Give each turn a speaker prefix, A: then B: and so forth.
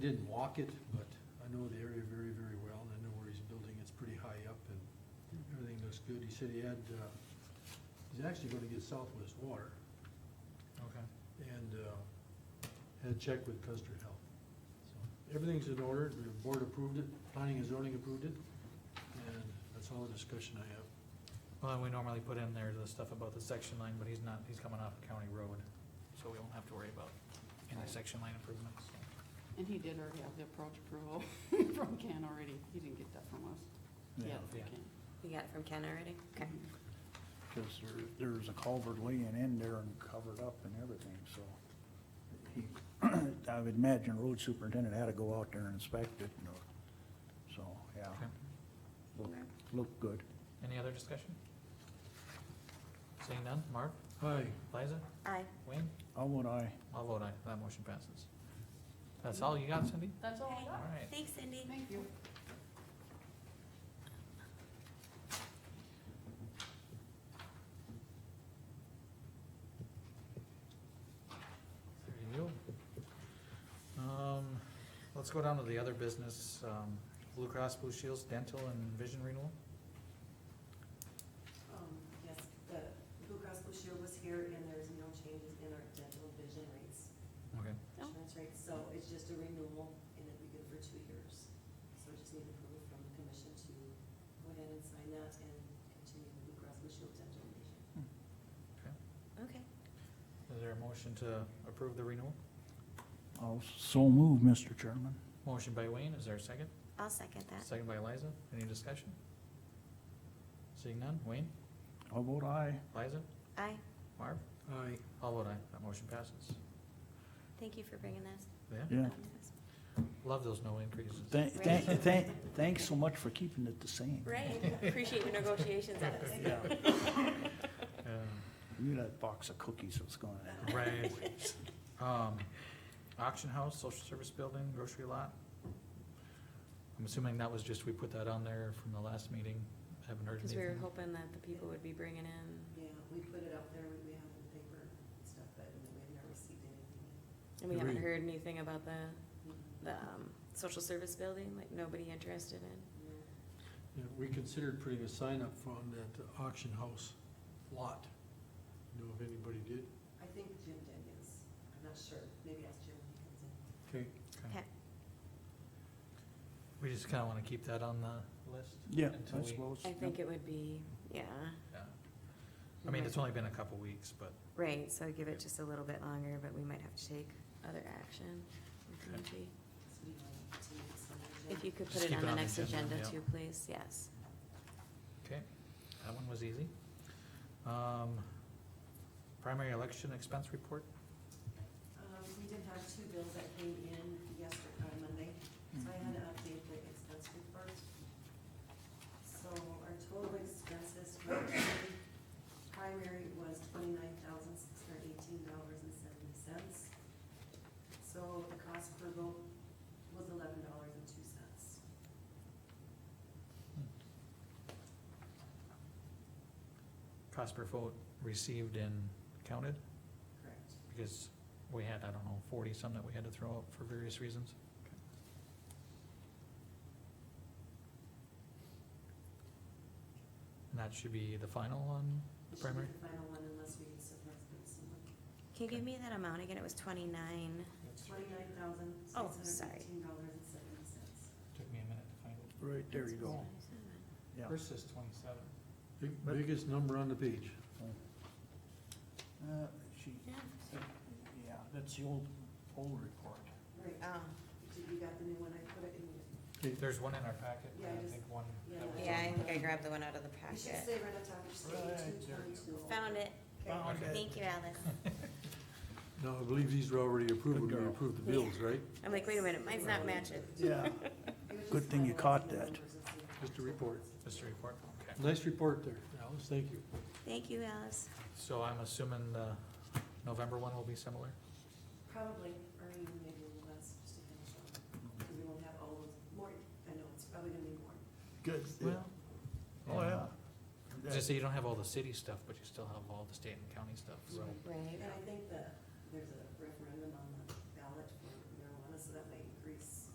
A: Didn't walk it, but I know the area very, very well, and I know where he's building, it's pretty high up, and everything looks good. He said he had, uh, he's actually gonna get Southwest Water,
B: Okay.
A: and, uh, had checked with Custer Health. So Everything's in order, the board approved it, planning and zoning approved it, and that's all the discussion I have.
B: Well, and we normally put in there the stuff about the section line, but he's not, he's coming off a county road, so we won't have to worry about any section line improvements.
C: And he did already have the approach approval from Ken already. He didn't get that from us. He had it from
B: Yeah.
C: Ken.
D: You got it from Ken already? Okay.
E: Because there, there was a culvert laying in there and covered up and everything, so. he- I would imagine road superintendent had to go out there and inspect it, you know, so, yeah,
B: Okay.
E: looked, looked good.
B: Any other discussion? Seeing none, Mark,
A: Hi,
B: Liza,
D: Aye.
B: Wayne,
E: How would I?
B: I'll vote aye, that motion passes. That's all you got, Cindy?
C: That's all I
B: All
C: got.
B: right,
D: Thanks, Cindy.
C: Thank you.
B: there you go. Um, let's go down to the other business, um, Blue Cross Blue Shields Dental and Vision Renewal.
F: Um, yes, the Blue Cross Blue Shield was here and there's no changes in our dental vision rates,
B: Okay.
D: Oh.
F: insurance rates, so it's just a renewal and it'll be good for two years. So I just need approval from the commission to go ahead and sign that and continue the Blue Cross Blue Shield dental vision.
D: Okay.
B: Is there a motion to approve the renewal?
E: I'll so move, Mr. Chairman.
B: Motion by Wayne, is there a second?
D: I'll second that.
B: Second by Liza, any discussion? Seeing none, Wayne,
E: How would I?
B: Liza,
D: Aye.
B: Marv,
A: hi.
B: all vote aye, that motion passes.
D: Thank you for bringing this.
B: Yeah,
E: Yeah.
B: love those no increases.
E: Thank,
D: Right.
E: thank, thank, thanks so much for keeping it the same.
D: Right. Appreciate your negotiations on this.
E: Yeah,
B: Yeah,
E: knew that box of cookies was going.
B: Right. Um, auction house, social service building, grocery lot. I'm assuming that was just, we put that on there from the last meeting, haven't heard
D: Because we were
B: anything.
D: hoping that the people would be bringing in,
F: Yeah, we put it up there, we we have it in the paper and stuff, but we've never received anything. Mm-hmm.
D: and we haven't
A: Agreed.
D: heard anything about the,
F: yet.
D: the, um, social service building, like nobody interested in.
F: No.
A: Yeah, we considered putting a sign up on that auction house lot. Know if anybody did?
F: I think Jim did, yes. I'm not sure. Maybe ask Jim when he comes in.
A: Okay.
D: Okay.
B: We just kinda wanna keep that on the list.
E: Yeah,
B: Until
E: I
B: we-
E: suppose.
D: I think it would be, yeah,
B: Yeah. I mean, it's only been a couple weeks, but
D: right, so give it just a little bit longer, but we might have to take other action.
B: Okay.
D: Maybe.
F: So we want to make some agenda.
D: If you could put
B: Just
D: it
B: keep
D: on the next agenda
B: yeah.
D: too, please, yes.
B: Okay, that one was easy. Um, primary election expense report,
F: Um, we did have two bills that came in yesterday, uh, Monday, so I
E: Mm-hmm.
F: had to update the expense report. So our total expenses for the primary was twenty-nine thousand six hundred eighteen dollars and seventy cents. So the cost per vote was eleven dollars and two cents.
B: cost per vote received and counted,
F: Correct.
B: because we had, I don't know, forty-some that we had to throw out for various reasons. And that should be the final one,
F: It should
B: primary?
F: be the final one unless we surprise them someone.
D: Can you give me that amount again? It was twenty-nine.
F: Twenty-nine thousand six
D: Oh,
F: hundred
D: sorry.
F: eighteen dollars and seventy cents.
B: Took me a minute to find it.
E: Right, there you go. Yeah.
B: First says twenty-seven.
A: Big,
E: But-
A: biggest number on the page.
E: Uh, she,
D: Yeah.
E: yeah, that's the old, old report.
F: Right,
D: Um,
F: Did you got the new one, I put it in, you
B: There's one in our packet,
F: Yeah,
B: and
F: I
B: I
F: just-
B: think one.
F: yeah,
B: that was-
D: Yeah, I think I grabbed the one out of the
F: should
D: packet.
F: say right on top, you should
E: Right,
F: say two
E: there you
F: twenty-two.
D: Found it.
B: Found it.
D: Thank you, Alice.
A: Now, I believe these were already approved when
E: Good
A: we
E: girl.
A: approved the bills, right?
D: I'm like, wait a minute, mine's not matching.
E: Yeah. Good thing you caught that.
A: Just a report.
B: Just a report, okay.
A: Nice report there, Alice, thank you.
D: Thank you, Alice.
B: So I'm assuming the November one will be similar?
F: Probably, or even maybe a little less, just to finish up, because we won't have all those, more, I know, it's probably gonna be more.
E: Good.
B: Well,
E: Oh, yeah.
B: Just so you don't have all the city stuff, but you still have all the state and county stuff, so.
D: Right.
F: And I think that there's a referendum on the